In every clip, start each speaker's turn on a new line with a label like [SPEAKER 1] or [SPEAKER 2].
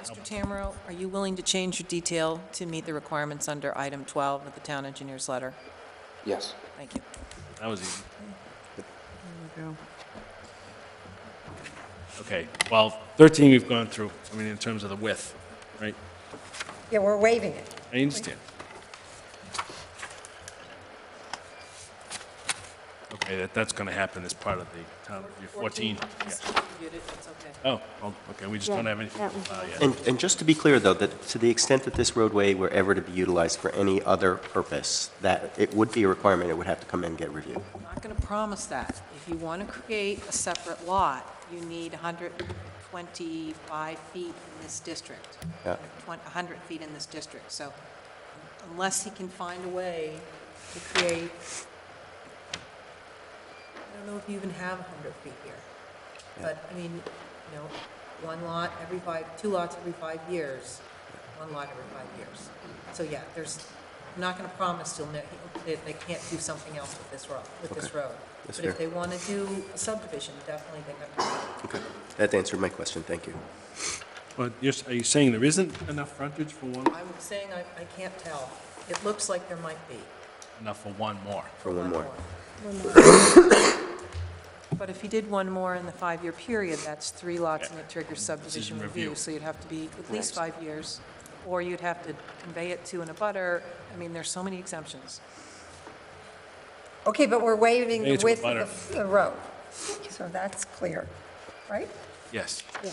[SPEAKER 1] Mr. Tamro, are you willing to change your detail to meet the requirements under item 12 of the town engineer's letter?
[SPEAKER 2] Yes.
[SPEAKER 1] Thank you.
[SPEAKER 3] That was easy.
[SPEAKER 4] we go.
[SPEAKER 3] Okay, well, 13 we've gone through, I mean, in terms of the width, right?
[SPEAKER 5] Yeah, we're waiving it.
[SPEAKER 3] I understand. Okay, that, that's gonna happen as part of the town review, 14, yeah. Oh, well, okay, we just don't have uh, anything to file yet.
[SPEAKER 6] And, and just to be clear, though, that to the extent that this roadway were ever to be utilized for any other purpose, that it would be a requirement, it would have to come in and get reviewed.
[SPEAKER 1] I'm not going to promise that. If you want to create a separate lot, you need 125 feet in this district,
[SPEAKER 6] Yeah.
[SPEAKER 1] 100 feet in this district. So unless he can find a way to create, I don't know if you even have 100 feet here, but, I mean, you know, one lot every five, two lots every five years, one lot every five years. So, yeah, there's, I'm not going to promise he'll, ne- that they can't do something else with this road, with this road.
[SPEAKER 6] That's
[SPEAKER 1] But if they
[SPEAKER 6] fair.
[SPEAKER 1] want to do a subdivision, definitely they have to.
[SPEAKER 6] Okay, that answered my question, thank you.
[SPEAKER 3] But you're, s- are you saying there isn't enough frontage for one,
[SPEAKER 1] I'm saying I, I can't tell. It looks like there might be.
[SPEAKER 3] enough for one more?
[SPEAKER 6] For one more.
[SPEAKER 1] But if you did one more in the five-year period, that's three lots and it triggers subdivision
[SPEAKER 3] Decision
[SPEAKER 1] review.
[SPEAKER 3] review.
[SPEAKER 1] So you'd have to be at least five years, or you'd have to convey it to an abutter. I mean, there's so many exemptions.
[SPEAKER 5] Okay, but we're waiving
[SPEAKER 3] Hey,
[SPEAKER 5] the
[SPEAKER 3] it's
[SPEAKER 5] width
[SPEAKER 3] butter.
[SPEAKER 5] of the- the road. So that's clear, right?
[SPEAKER 3] Yes,
[SPEAKER 5] Yeah.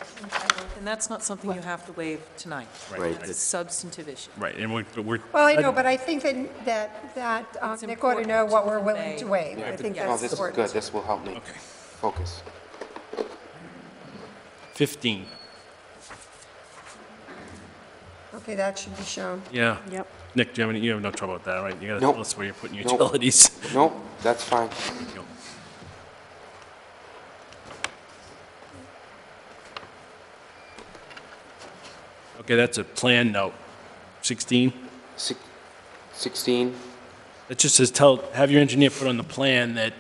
[SPEAKER 1] And that's not something you have to waive tonight.
[SPEAKER 6] Right,
[SPEAKER 1] That's a
[SPEAKER 6] that's-
[SPEAKER 1] substantive issue.
[SPEAKER 3] right, and we're, but we're.
[SPEAKER 5] Well, I know, but I think that, that, that um,
[SPEAKER 1] It's
[SPEAKER 5] Nick ought to
[SPEAKER 1] important
[SPEAKER 5] know what
[SPEAKER 1] to
[SPEAKER 5] we're willing to
[SPEAKER 1] convey.
[SPEAKER 5] waive. I think
[SPEAKER 2] No,
[SPEAKER 3] Oh,
[SPEAKER 5] that's
[SPEAKER 2] this is good,
[SPEAKER 5] important.
[SPEAKER 2] this will help me
[SPEAKER 3] Okay,
[SPEAKER 2] focus.
[SPEAKER 3] 15,
[SPEAKER 5] Okay, that should be shown.
[SPEAKER 3] yeah.
[SPEAKER 4] Yep.
[SPEAKER 3] Nick, do you have any, you have no trouble with that, right? You gotta
[SPEAKER 2] Nope.
[SPEAKER 3] tell us where you're putting your
[SPEAKER 2] Nope.
[SPEAKER 3] utilities.
[SPEAKER 2] Nope, that's fine.
[SPEAKER 3] Go. Okay, that's a plan note. 16,
[SPEAKER 2] Six- 16,
[SPEAKER 3] it just says, tell, have your engineer put on the plan that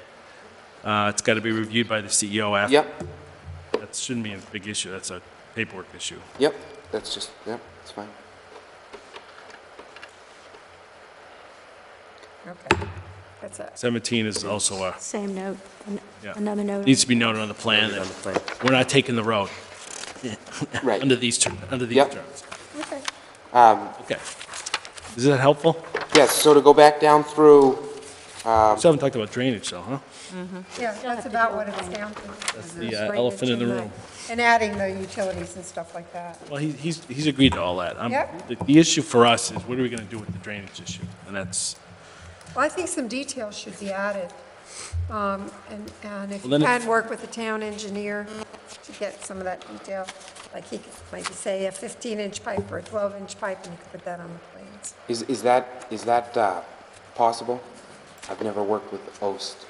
[SPEAKER 3] uh, it's got to be reviewed by the CEO after.
[SPEAKER 2] yep,
[SPEAKER 3] That shouldn't be a big issue, that's a paperwork issue.
[SPEAKER 2] yep, that's just, yep, it's fine.
[SPEAKER 5] Okay, that's it.
[SPEAKER 3] 17 is also a,
[SPEAKER 4] Same note, an-
[SPEAKER 3] Yeah.
[SPEAKER 4] another note.
[SPEAKER 3] needs to be noted on the plan
[SPEAKER 6] Noted on the plan.
[SPEAKER 3] that we're not taking the road
[SPEAKER 2] Right.
[SPEAKER 3] under these, ter- under these
[SPEAKER 2] Yep.
[SPEAKER 3] terms.
[SPEAKER 5] Okay.
[SPEAKER 3] Okay. Is that helpful?
[SPEAKER 2] Yes, so to go back down through, Um,
[SPEAKER 3] Still haven't talked about drainage though, huh?
[SPEAKER 5] Yeah, that's about what it's down to.
[SPEAKER 3] That's the uh, elephant in the room.
[SPEAKER 5] And adding the utilities and stuff like that.
[SPEAKER 3] Well, he- he's, he's agreed to all that. I'm-
[SPEAKER 5] Yep.
[SPEAKER 3] the- The issue for us is what are we going to do with the drainage issue? And that's,
[SPEAKER 5] Well, I think some details should be added. Um, And, and if
[SPEAKER 3] Well,
[SPEAKER 5] you
[SPEAKER 3] then
[SPEAKER 5] can
[SPEAKER 3] if-
[SPEAKER 5] work with the town engineer to get some of that detail, like he could maybe say a 15-inch pipe or a 12-inch pipe, and you could put that on the plans.
[SPEAKER 2] is, is that, is that uh, possible? I've never worked with the OST.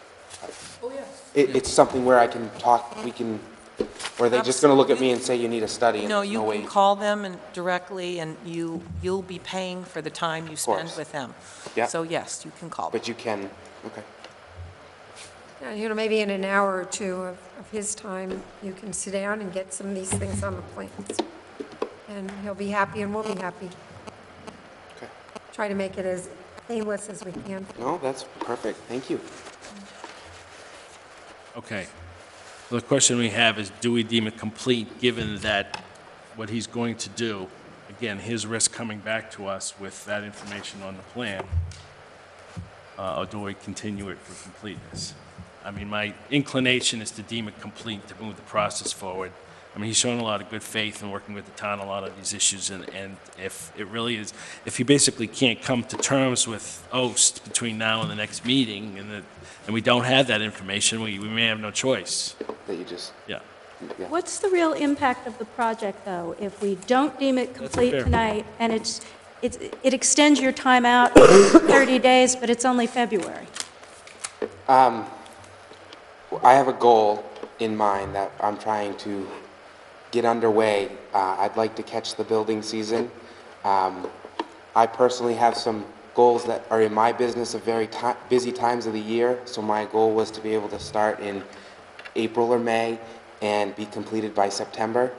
[SPEAKER 1] Oh, yeah.
[SPEAKER 2] It, it's something where I can talk, we can, or are they just gonna look at me and say you need a study and
[SPEAKER 1] No,
[SPEAKER 2] there's
[SPEAKER 1] you
[SPEAKER 2] no way?
[SPEAKER 1] can call them and directly, and you, you'll be paying for the time you spend
[SPEAKER 2] course.
[SPEAKER 1] with them.
[SPEAKER 2] Yeah.
[SPEAKER 1] So yes, you can call them.
[SPEAKER 2] But you can, okay.
[SPEAKER 5] And, you know, maybe in an hour or two of, of his time, you can sit down and get some of these things on the plans. And he'll be happy and we'll be happy.
[SPEAKER 2] Okay.
[SPEAKER 5] Try to make it as painless as we can.
[SPEAKER 2] No, that's perfect, thank you.
[SPEAKER 3] okay. So The question we have is, do we deem it complete, given that what he's going to do, again, his risk coming back to us with that information on the plan, uh, or do we continue it for completeness? I mean, my inclination is to deem it complete, to move the process forward. I mean, he's shown a lot of good faith in working with the town on a lot of these issues, and, and if it really is, if he basically can't come to terms with OST between now and the next meeting, and that, and we don't have that information, we, we may have no choice.
[SPEAKER 2] That you just,
[SPEAKER 3] Yeah.
[SPEAKER 2] yeah.
[SPEAKER 4] What's the real impact of the project, though, if we don't deem it complete
[SPEAKER 3] fair-
[SPEAKER 4] tonight, and it's, it's- it extends your time out 30 days, but it's only February?
[SPEAKER 2] I have a goal in mind that I'm trying to get underway. Uh, I'd like to catch the building season. Um, I personally have some goals that are in my business of very ti busy times of the year. So my goal was to be able to start in April or May and be completed by September.